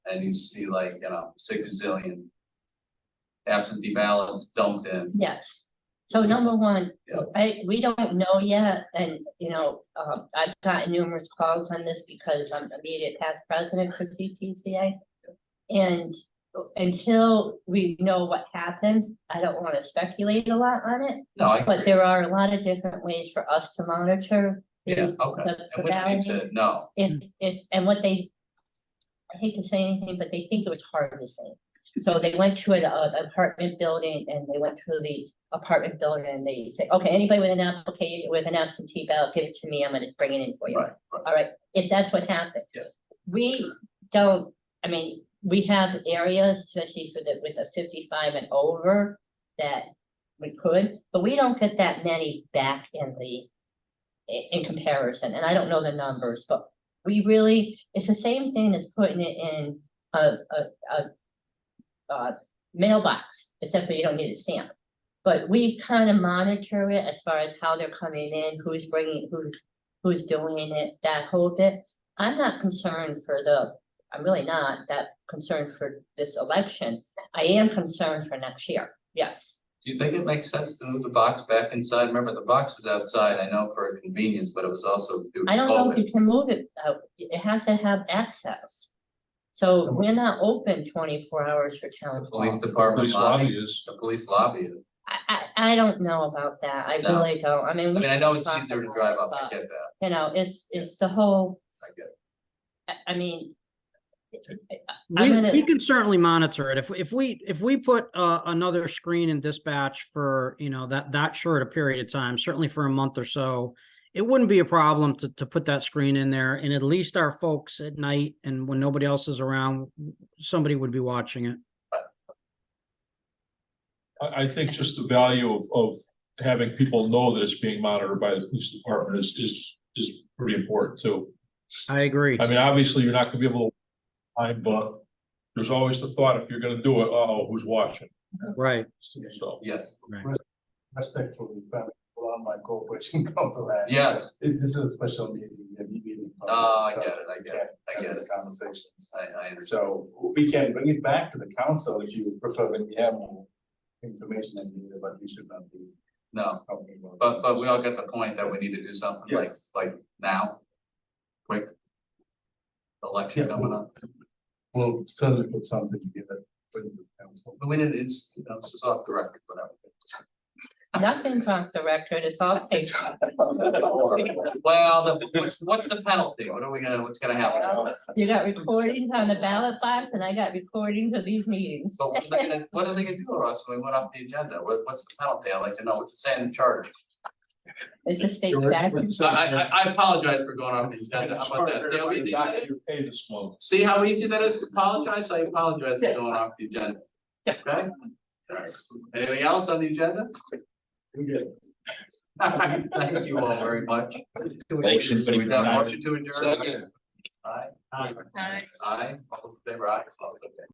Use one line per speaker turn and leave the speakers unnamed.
and you see like, you know, six zillion. Absentee ballots dumped in,
Yes. So number one,
Yep.
I, we don't know yet, and, you know, um, I've gotten numerous calls on this because I'm immediate past president for CTCA. And until we know what happened, I don't wanna speculate a lot on it,
no, I.
but there are a lot of different ways for us to monitor. the-
Yeah, okay.
the- the
And we need
balloting.
to, no,
If, if, and what they, I hate to say anything, but they think it was hard to say. So they went to an uh, apartment building and they went to the apartment building and they say, okay, anybody with an application, with an absentee ballot, give it to me, I'm gonna bring it in for you.
right, right,
All right, if that's what happened.
Yeah.
We don't, I mean, we have areas, especially for the, with the fifty-five and over, that we could, but we don't get that many back in the, i- in comparison, and I don't know the numbers, but we really, it's the same thing as putting it in a, a, a, uh, mailbox, except for you don't need a stamp. But we kind of monitor it as far as how they're coming in, who's bringing, who's who's doing it, that whole bit. I'm not concerned for the, I'm really not that concerned for this election. I am concerned for next year, yes.
do you think it makes sense to move the box back inside, remember the box was outside, I know for convenience, but it was also due to
I don't know if
COVID.
you can move it, uh, it has to have access. So we're not open twenty-four hours for town hall.
Police department
Police
lobby,
lobby is,
the police lobby,
I, I, I don't know about that, I
No.
really don't, I mean.
I
we
mean, I know
can
it's
talk
easier to
about
drive
it,
up, I
but,
get that,
You know, it's, it's the whole,
I get it.
I, I mean. it- it- I'm
We,
gonna-
we can certainly monitor it. If, if we, if we put, uh, another screen in dispatch for, you know, that, that short a period of time, certainly for a month or so, it wouldn't be a problem to, to put that screen in there and at least our folks at night and when nobody else is around, somebody would be watching it.
I, I think just the value of, of having people know that it's being monitored by the police department is, is, is pretty important too.
I agree.
I mean, obviously, you're not gonna be able to, I, but there's always the thought, if you're gonna do it, oh, who's watching?
Right.
So,
yes,
respectfully, but allow my cooperation council. that.
yes,
It- This is a special meeting, a meeting.
oh, I get it, I get it, I
I
get it,
guess conversations.
I, I understand.
So we can bring it back to the council if you prefer when we have more information and data, but we should not be.
No,
talking about
but, but we all
this.
get the point that we need to do something like,
Yes.
like now. Quick. Election
Yeah.
coming up,
We'll certainly put something together with the council.
but we didn't, it's, you know, it's just off the record, whatever.
Nothing's off the record, it's all paper.
Well, the, what's, what's the penalty? What are we gonna, what's gonna happen?
You got recordings on the ballot box and I got recordings of these meetings.
So what are they gonna- what are they gonna do to us when we went off the agenda? What, what's the penalty? I'd like to know. What's the same charter?
It's a state
You're-
statute.
I, I, I apologize for going off the agenda. How about that? See how easy that is?
You pay this month.
See how easy that is to apologize? I apologize for going off the agenda. Okay? Anything else on the agenda?
We're good.
Thank you all very much.
Motion to
We got a
adjourn.
motion to adjourn.
Second.
Aye. Aye. Aye. All those in favor, aye. Okay.